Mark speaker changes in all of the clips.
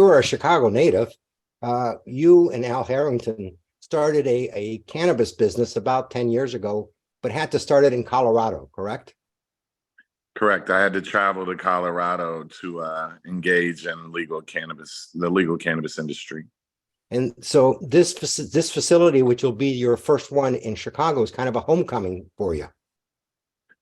Speaker 1: you're a Chicago native. Uh, you and Al Harrington started a, a cannabis business about ten years ago, but had to start it in Colorado, correct?
Speaker 2: Correct. I had to travel to Colorado to uh, engage in legal cannabis, the legal cannabis industry.
Speaker 1: And so this, faci- this facility, which will be your first one in Chicago, is kind of a homecoming for you.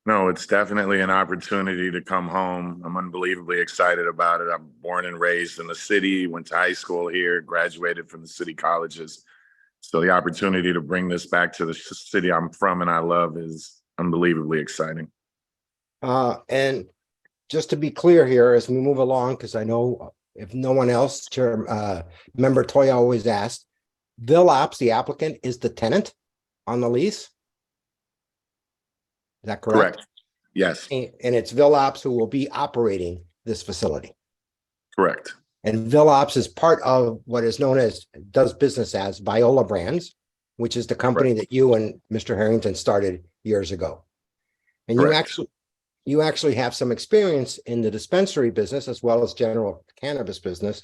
Speaker 2: No, it's definitely an opportunity to come home. I'm unbelievably excited about it. I'm born and raised in the city, went to high school here, graduated from the city colleges. So the opportunity to bring this back to the sh- city I'm from and I love is unbelievably exciting.
Speaker 1: Uh, and just to be clear here, as we move along, because I know if no one else, Chair, uh, Member Toya always asked, Villops, the applicant, is the tenant on the lease? Is that correct?
Speaker 2: Correct. Yes,
Speaker 1: And and it's Villops who will be operating this facility.
Speaker 2: correct.
Speaker 1: And Villops is part of what is known as, does business as Viola Brands, which is the company that you and Mr. Harrington started years ago. And you
Speaker 2: Correct.
Speaker 1: actually, you actually have some experience in the dispensary business as well as general cannabis business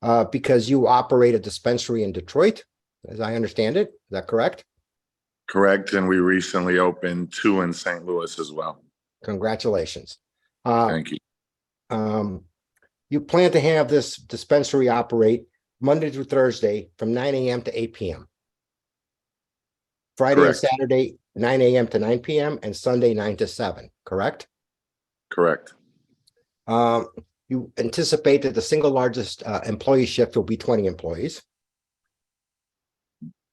Speaker 1: uh, because you operate a dispensary in Detroit, as I understand it. Is that correct?
Speaker 2: Correct. And we recently opened two in St. Louis as well.
Speaker 1: Congratulations. Uh,
Speaker 2: Thank you.
Speaker 1: um, you plan to have this dispensary operate Monday through Thursday from nine AM to eight PM. Friday and
Speaker 2: Correct.
Speaker 1: Saturday, nine AM to nine PM and Sunday nine to seven, correct?
Speaker 2: Correct.
Speaker 1: Um, you anticipate that the single largest uh employee shift will be twenty employees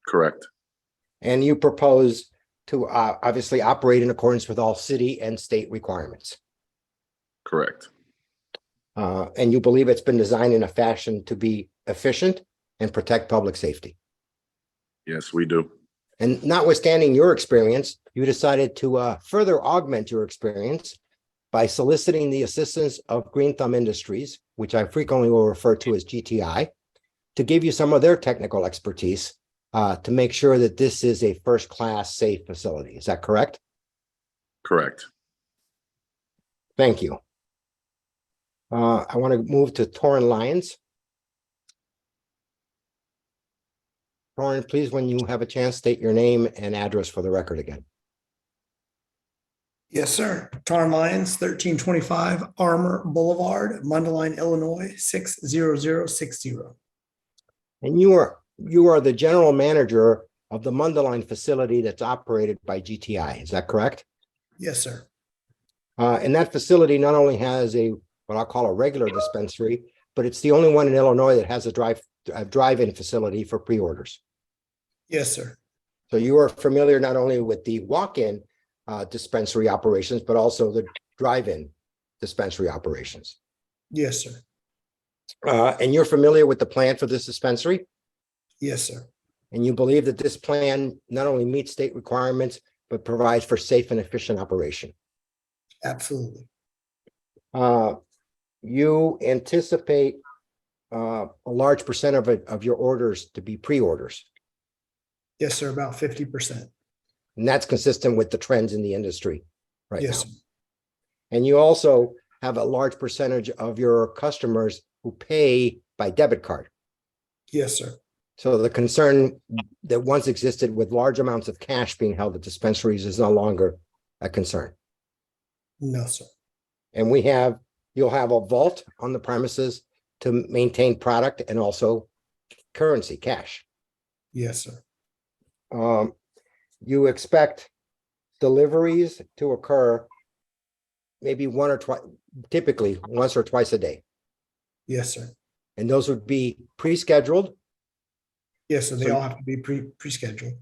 Speaker 2: Correct.
Speaker 1: and you propose to uh obviously operate in accordance with all city and state requirements.
Speaker 2: Correct.
Speaker 1: Uh, and you believe it's been designed in a fashion to be efficient and protect public safety.
Speaker 2: Yes, we do.
Speaker 1: And notwithstanding your experience, you decided to uh, further augment your experience by soliciting the assistance of Green Thumb Industries, which I frequently will refer to as GTI, to give you some of their technical expertise uh, to make sure that this is a first-class safe facility. Is that correct?
Speaker 2: Correct.
Speaker 1: Thank you. Uh, I want to move to Torrin Lyons. Torrin, please, when you have a chance, state your name and address for the record again.
Speaker 3: Yes, sir. Tarm Lyons, thirteen twenty-five Armor Boulevard, Mundelein, Illinois, six zero zero six zero.
Speaker 1: And you are, you are the general manager of the Mundaline facility that's operated by GTI, is that correct?
Speaker 3: Yes, sir.
Speaker 1: Uh, and that facility not only has a, what I'll call a regular dispensary, but it's the only one in Illinois that has a drive, a drive-in facility for pre-orders.
Speaker 3: Yes, sir.
Speaker 1: So you are familiar not only with the walk-in, uh, dispensary operations, but also the drive-in dispensary operations.
Speaker 3: Yes, sir.
Speaker 1: Uh, and you're familiar with the plan for this dispensary?
Speaker 3: Yes, sir.
Speaker 1: And you believe that this plan not only meets state requirements, but provides for safe and efficient operation.
Speaker 3: Absolutely.
Speaker 1: Uh, You anticipate uh, a large percent of it, of your orders to be pre-orders.
Speaker 3: Yes, sir. About fifty percent.
Speaker 1: And that's consistent with the trends in the industry right now.
Speaker 3: Yes, sir.
Speaker 1: And you also have a large percentage of your customers who pay by debit card.
Speaker 3: Yes, sir.
Speaker 1: So the concern that once existed with large amounts of cash being held at dispensaries is no longer a concern.
Speaker 3: No, sir.
Speaker 1: And we have, you'll have a vault on the premises to maintain product and also currency, cash.
Speaker 3: Yes, sir.
Speaker 1: Um, you expect deliveries to occur maybe one or twice, typically once or twice a day.
Speaker 3: Yes, sir.
Speaker 1: And those would be pre-scheduled.
Speaker 3: Yes, sir. They
Speaker 1: So-
Speaker 3: all have to be pre, pre-scheduled.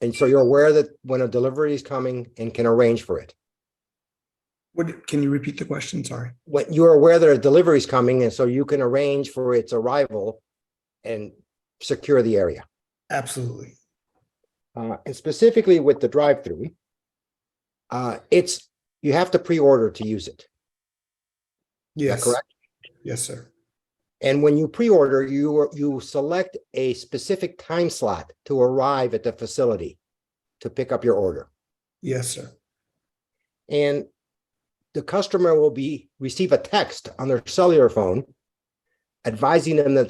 Speaker 1: And so you're aware that when a delivery is coming and can arrange for it.
Speaker 3: What, can you repeat the question? Sorry.
Speaker 1: When you're aware that a delivery is coming and so you can arrange for its arrival and secure the area.
Speaker 3: Absolutely.
Speaker 1: uh, and specifically with the drive-through, uh, it's, you have to pre-order to use it. Is that
Speaker 3: Yes.
Speaker 1: correct?
Speaker 3: Yes, sir.
Speaker 1: And when you pre-order, you, you select a specific time slot to arrive at the facility to pick up your order.
Speaker 3: Yes, sir.
Speaker 1: And the customer will be, receive a text on their cellular phone advising them that